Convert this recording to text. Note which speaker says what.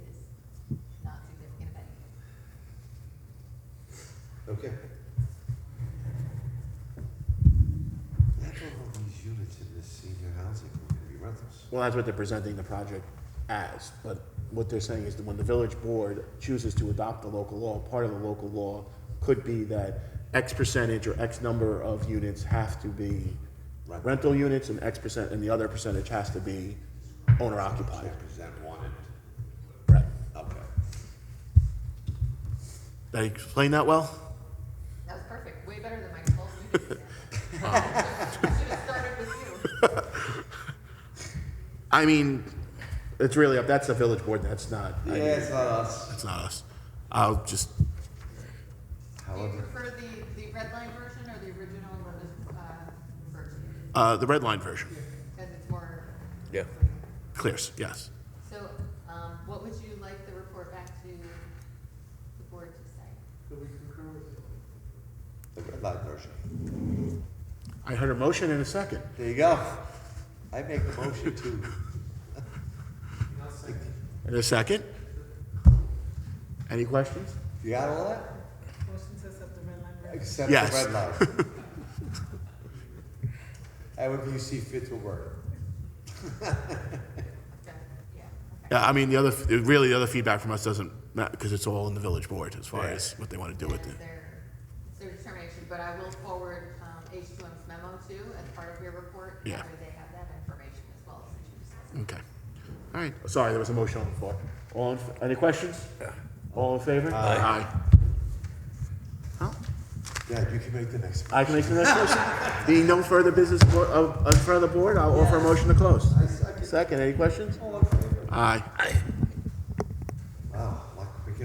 Speaker 1: Okay. I don't know how these units in this senior housing are gonna be rentals.
Speaker 2: Well, that's what they're presenting the project as, but what they're saying is that when the village board chooses to adopt the local law, part of the local law could be that X percentage or X number of units have to be
Speaker 1: Right.
Speaker 2: rental units and X percent, and the other percentage has to be owner occupied.
Speaker 1: Represent one and,
Speaker 2: Right.
Speaker 1: okay.
Speaker 2: Did I explain that well?
Speaker 3: That was perfect, way better than my whole meeting. I should have started with you.
Speaker 2: I mean, it's really up, that's the village board, that's not, I mean,
Speaker 1: it's not us.
Speaker 2: that's not us. I'll just,
Speaker 3: Do you
Speaker 1: However,
Speaker 3: prefer the, the red line version or the original uh, version?
Speaker 2: uh, the red line version,
Speaker 3: Because it's more.
Speaker 4: Yeah.
Speaker 2: clears, yes.
Speaker 3: So, um, what would you like the report back to the board to say?
Speaker 1: the red light version.
Speaker 2: I heard a motion in a second.
Speaker 1: There you go. I make the motion to,
Speaker 2: In a second? Any questions?
Speaker 1: you got all that?
Speaker 5: Motion to accept the red line version.
Speaker 1: Except the
Speaker 2: Yes.
Speaker 1: red light. However you see fit to work.
Speaker 3: Okay, yeah, okay.
Speaker 2: Yeah, I mean, the other, really, the other feedback from us doesn't, because it's all in the village board as far as what they want to do with
Speaker 3: And
Speaker 2: it.
Speaker 3: it's their- It's their determination, but I will forward, um, H2M's memo too as part of your report.
Speaker 2: Yeah.
Speaker 3: whether They have that information as well as the juice.
Speaker 2: Okay. All right. Sorry, there was a motion on the floor. All, in f- any questions? All in favor? Aye. Well,
Speaker 1: Dad, you can make the next one.
Speaker 2: I can make the next motion. Being no further business for- of, in front of the board, I'll offer a motion to close. Second, any questions? Aye.
Speaker 1: Oh,